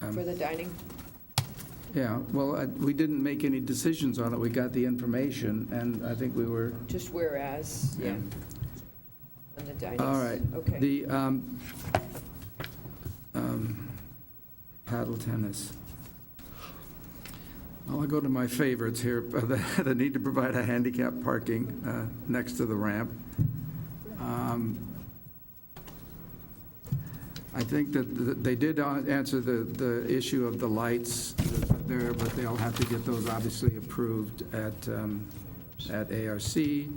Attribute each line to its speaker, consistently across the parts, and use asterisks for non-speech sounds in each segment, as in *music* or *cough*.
Speaker 1: Um,
Speaker 2: for the dining.
Speaker 1: Yeah, well, I- we didn't make any decisions on it. We got the information, and I think we were,
Speaker 2: Just whereas, yeah,
Speaker 1: yeah.
Speaker 2: on the dining.
Speaker 1: All right.
Speaker 2: Okay.
Speaker 1: The um, um, paddle tennis. Well, I'll go to my favorites here, *laughs* the the need to provide a handicap parking uh, next to the ramp. Um, I think that th- they did a- answer the, the issue of the lights there, but they'll have to get those obviously approved at, um, at ARC.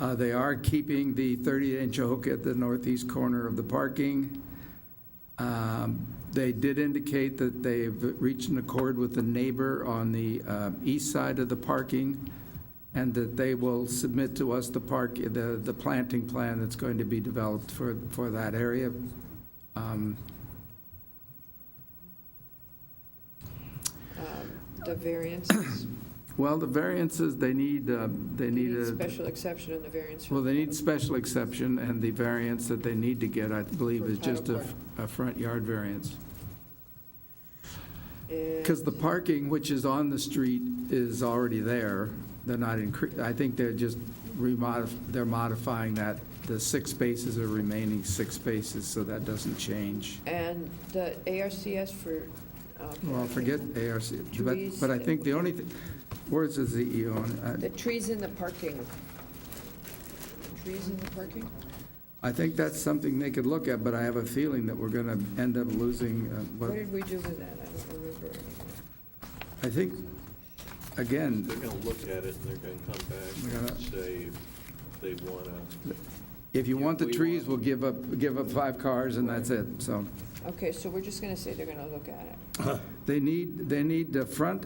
Speaker 1: Uh, They are keeping the 30-inch hook at the northeast corner of the parking. Um, They did indicate that they've reached an accord with the neighbor on the um, east side of the parking, and that they will submit to us the park, the, the planting plan that's going to be developed for, for that area. Um,
Speaker 2: Um, The
Speaker 1: *coughs*
Speaker 2: variances.
Speaker 1: Well, the variances, they need, uh, they need a...
Speaker 2: Special exception on the variance.
Speaker 1: Well, they need special exception, and the variance that they need to get, I believe, is just a, a front yard variance. Because the parking, which is on the street, is already there. They're not incre, I think they're just remodif, they're modifying that. The six spaces are remaining six spaces, so that doesn't change.
Speaker 2: And the ARCS for. uh,
Speaker 1: Well, forget ARC, but, but I think the only, thing- where's the ZEO? on
Speaker 2: The
Speaker 1: it?
Speaker 2: trees in the parking. Trees in the parking?
Speaker 1: I I think that's something they could look at, but I have a feeling that we're going to end up losing uh, what
Speaker 2: What did we do with that? I don't remember.
Speaker 1: I think, again,
Speaker 3: They're going to look at it and they're going to come
Speaker 1: We're
Speaker 3: back
Speaker 1: gonna-
Speaker 3: and say if they want to,
Speaker 1: if you want the
Speaker 3: We
Speaker 1: trees,
Speaker 3: want-
Speaker 1: we'll give up, give up five cars and that's it, so.
Speaker 2: Okay, so we're just going to say they're going to look at it.
Speaker 1: They need, they need the front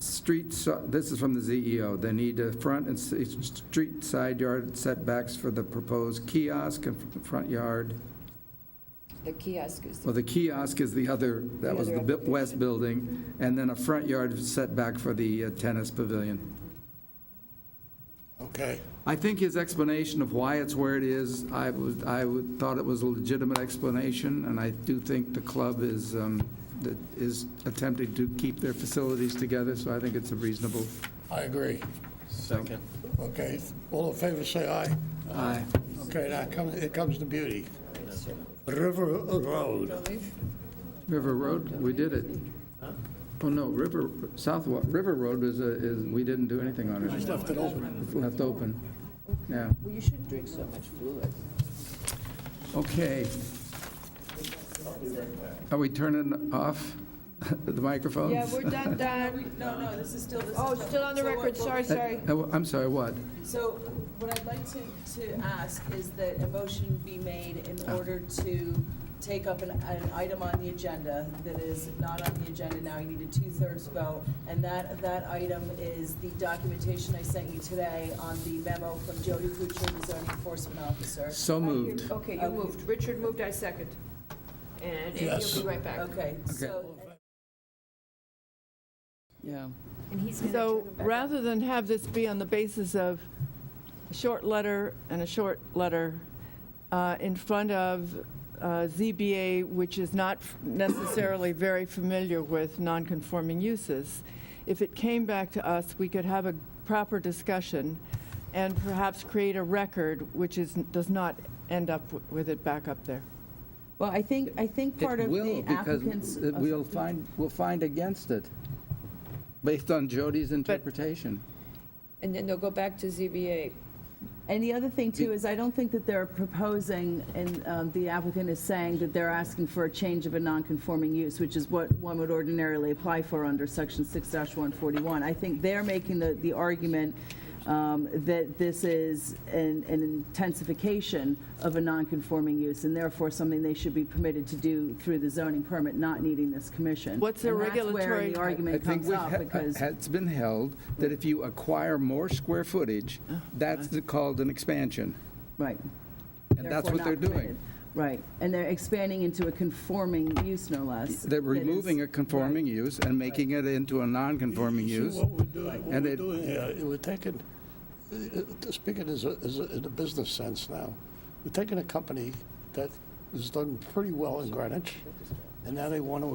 Speaker 1: street, si- this is from the ZEO, they need the front and s- street side yard setbacks for the proposed kiosk and f- front yard.
Speaker 2: The kiosk is,
Speaker 1: Well, the kiosk is the other,
Speaker 2: The
Speaker 1: that was the
Speaker 2: other
Speaker 1: bi-
Speaker 2: application.
Speaker 1: west building, and then a front yard setback for the uh, tennis pavilion.
Speaker 4: Okay.
Speaker 1: I think his explanation of why it's where it is, I would, I would, thought it was a legitimate explanation, and I do think the club is, um, that is attempting to keep their facilities together, so I think it's a reasonable.
Speaker 4: I agree.
Speaker 3: second,
Speaker 4: Okay, all in favor, say aye.
Speaker 1: Aye.
Speaker 4: Okay, now come- it comes to beauty. River Road,
Speaker 1: River Road, we did it. Oh, no, River, South, Wa- River Road is, a- is, we didn't do anything on
Speaker 4: just
Speaker 1: it,
Speaker 4: left it open.
Speaker 1: left open. Yeah,
Speaker 2: well, you shouldn't drink so much fluid.
Speaker 1: okay. Are we turning off *laughs* the Uh, microphones?
Speaker 2: Yeah, we're done, done.
Speaker 5: Um, No, no, this is still, this is.
Speaker 2: Oh, still on the
Speaker 5: So what-
Speaker 2: record,
Speaker 5: what
Speaker 2: sorry,
Speaker 5: we-
Speaker 2: sorry.
Speaker 1: Uh, I'm sorry, what?
Speaker 5: So what I'd like to, to ask is that a motion be made in
Speaker 1: Ah.
Speaker 5: order to take up an, an item on the agenda that is not on the agenda now, you need a two-thirds vote. And that, that item is the documentation I sent you today on the memo from Jody Kuchar, the zoning enforcement officer.
Speaker 1: So moved.
Speaker 2: Okay, you moved. Richard moved, I second. And he'll
Speaker 4: Yes.
Speaker 2: be right back.
Speaker 5: Okay, so.
Speaker 6: Yeah.
Speaker 7: So rather than have this be on the basis of a short letter and a short letter uh, in front of uh, ZBA, which is not necessarily very familiar with nonconforming uses, if it came back to us, we could have a proper discussion and perhaps create a record which is, does not end up w- with it back up there.
Speaker 6: Well, I think, I think part of the applicant's. Oh,
Speaker 1: It will, because we'll find, we'll find against it, based on Jody's interpretation.
Speaker 2: And then they'll go back to ZBA.
Speaker 6: And the other thing too is I don't think that they're proposing, and um, the applicant is saying that they're asking for a change of a non-conforming use, which is what one would ordinarily apply for under section six one forty-one. I think they're making the, the argument um, that this is an an intensification of a non-conforming use and therefore something they should be permitted to do through the zoning permit, not needing this commission.
Speaker 7: What's their
Speaker 6: And that's where
Speaker 7: regulatory-
Speaker 6: the
Speaker 1: I
Speaker 6: argument
Speaker 1: think
Speaker 6: comes
Speaker 1: we've
Speaker 6: up
Speaker 1: he-
Speaker 6: because.
Speaker 1: It's been held that if you acquire more square footage,
Speaker 6: Oh,
Speaker 1: that's the- called an expansion,
Speaker 6: Right.
Speaker 1: and that's
Speaker 6: therefore
Speaker 1: what they're
Speaker 6: not permitted.
Speaker 1: doing.
Speaker 6: Right, and they're expanding into a conforming use, no less.
Speaker 1: They're
Speaker 6: that is-
Speaker 1: removing a conforming use and making it into a non-conforming
Speaker 4: You
Speaker 1: use.
Speaker 4: See what we're doing, what
Speaker 1: And
Speaker 4: we're
Speaker 1: it-
Speaker 4: doing here, we're taking, uh, speaking as a, as a, in a business sense now, we're taking a company that has done pretty well in Greenwich, and now they want to